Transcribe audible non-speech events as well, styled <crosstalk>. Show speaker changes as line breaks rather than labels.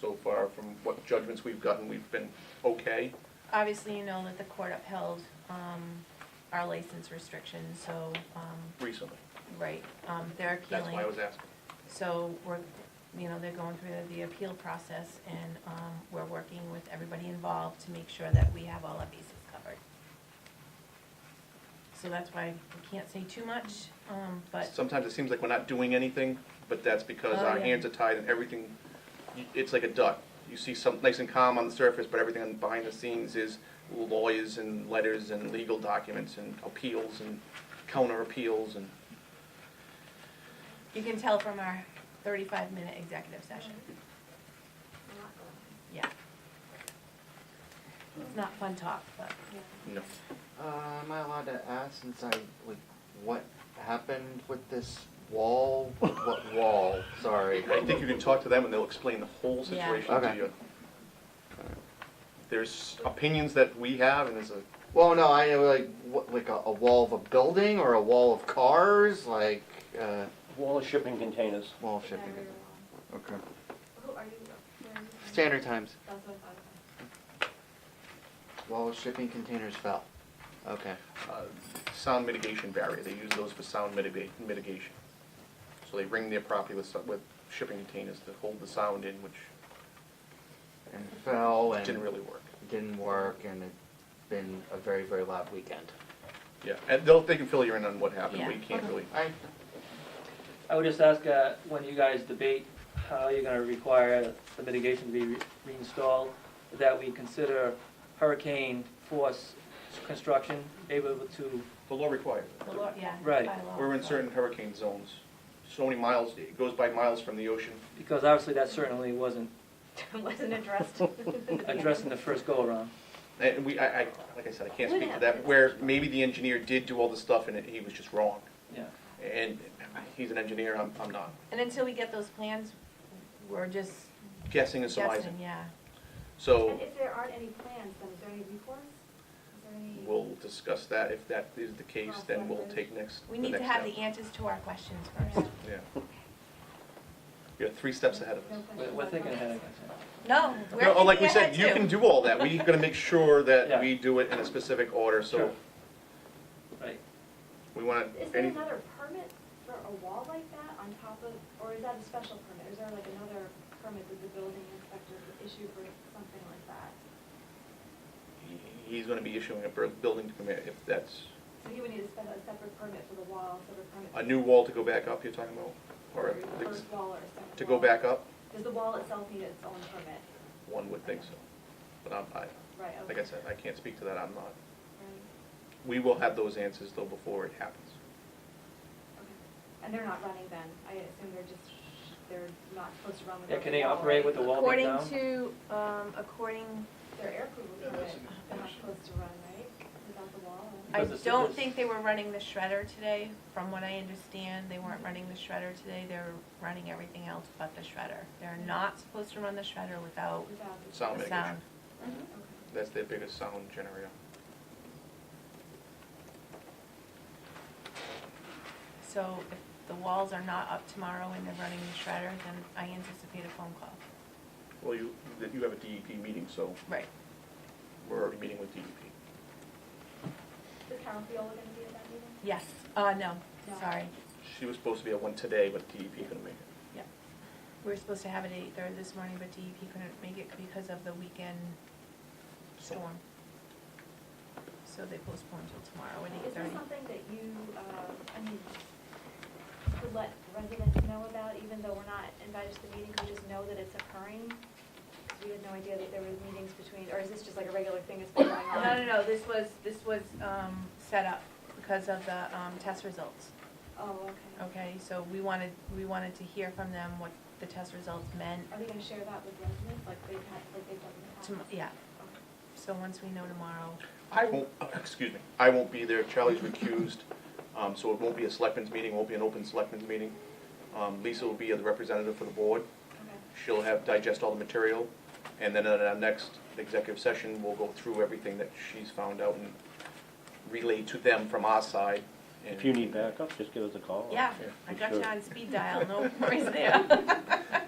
so far, from what judgments we've gotten, we've been okay.
Obviously, you know that the court upheld um, our license restrictions, so, um,
recently.
right, um, they're appealing.
That's why I was asking.
So we're, you know, they're going through the- the appeal process, and um, we're working with everybody involved to make sure that we have all our bases covered. So that's why we can't say too much, um, but
Sometimes it seems like we're not doing anything, but that's because
Oh,
our
yeah.
hands are tied and everything, y- it's like a duck. You see something nice and calm on the surface, but everything on- behind the scenes is lawyers and letters and legal documents and appeals and counter appeals and
you can tell from our thirty-five minute executive session. Yeah. It's not fun talk, but
you know.
Uh, am I allowed to ask since I like what happened with this wall? what wall? Sorry.
I think you can talk to them and they'll explain the whole
Yeah.
situation to
Okay.
you. There's opinions that we have and there's a,
Well, no, I know like what, like a, a wall of a building or a wall of cars, like uh,
Wall of shipping containers.
wall of shipping. Okay.
Who are you? Where are you?
Standard times.
That's what I thought. <laughs>
Wall of shipping containers fell. Okay.
uh, sound mitigation barrier. They use those for sound mitiga- mitigation. So they ring their property with, some- with shipping containers that hold the sound in, which
And fell and
didn't really work.
didn't work, and it's been a very very loud weekend.
Yeah, and they'll, they can fill you in on what happened,
Yeah.
we can't really.
I
I would just ask, uh, when you guys debate how you're gonna require the mitigation to be re- reinstalled, that we consider hurricane force construction able to,
The law requires
the law, yeah.
Right.
by law.
We're in certain hurricane zones, so many miles, it goes by miles from the ocean.
because obviously that certainly wasn't
Wasn't addressed.
addressed in the first go-around.
And we, I, I, like I said, I can't
What
speak to that,
happened?
where maybe the engineer did do all the stuff and it- he was just wrong.
Yeah,
And he's an engineer, I'm, I'm not.
And until we get those plans, we're just
Guessing and
guessing,
surmising.
yeah.
So
And if there aren't any plans, then is there any recourse? Is there any?
we'll discuss that. If that is the case, then we'll take next,
We
the
need to
next
have
step.
the answers to our questions first.
Yeah. You're three steps ahead of us.
No
we're,
questions
we're
about
thinking
that?
ahead, I guess.
No, we're
No, oh, like we
thinking
said,
ahead,
you
too.
can do all that.
<laughs>
We're gonna make sure that
Yeah.
we do it in a specific order, so
Sure. Right,
we wanna,
Is there
any,
another permit for a wall like that on top of, or is that a special permit? Is there like another permit that the building inspector would issue for something like that?
he's gonna be issuing a bur- building permit if that's
So he would need to spend a separate permit for the wall, separate permit.
a new wall to go back up, you're talking about? Or
for
if
the
it's-
First wall or second wall.
to go back up?
Does the wall itself need its own permit?
One would think so. But I'm, I,
Right, okay.
like I said, I can't speak to that. I'm not.
Right.
We will have those answers though before it happens.
Okay. And they're not running then? I assume they're just, they're not supposed to run with.
Yeah,
the
can they
wall, right?
operate with the wall?
According
down?
to, um, according,
Their air crew would
Yeah,
run
that's
it.
a good
They're not
question.
supposed to run, right? Without the wall?
I
Because it's-
don't
it's-
think they were running the shredder today, from what I understand, they weren't running the shredder today, they're running everything else but the shredder. They're not supposed to run the shredder without
Without the.
Sound
the
mitigation.
sound.
Okay.
That's their biggest sound generator.
So if the walls are not up tomorrow and they're running the shredder, then I anticipate a phone call.
Well, you, that you have a DEP meeting, so
Right.
we're already meeting with E DEP.
Is Carol Fiola gonna be at that meeting?
Yes, uh, no,
No.
sorry.
She was supposed to be at one today, but DEP couldn't make it.
We were supposed to have it eight thirty this morning, but DEP couldn't make it because of the weekend storm. So they postponed till tomorrow at eight
Is this
thirty.
something that you, uh, I mean, could let residents know about, even though we're not invited to the meeting, could we just know that it's occurring? 'Cause we had no idea that there were meetings between, or is this just like a regular thing that's been going on?
No, no, no, this was, this was, um, set up because of the, um, test results,
Oh, okay.
okay? So we wanted, we wanted to hear from them what the test results meant
Are they gonna share that with residents, like they've had, like they've done in the past?
to, yeah.
Okay.
So once we know tomorrow,
I won't, uh, excuse me, I won't be there. Charlie's recused, um, so it won't be a selectmen's meeting, won't be an open selectmen's meeting. Um, Lisa will be the representative for the board.
Okay.
She'll have, digest all the material, and then at our next executive session, we'll go through everything that she's found out and relay to them from our side. and-
If you need backup, just give us a call.
yeah, I
for
got you
sure.
on speed dial, no worries there. <laughs>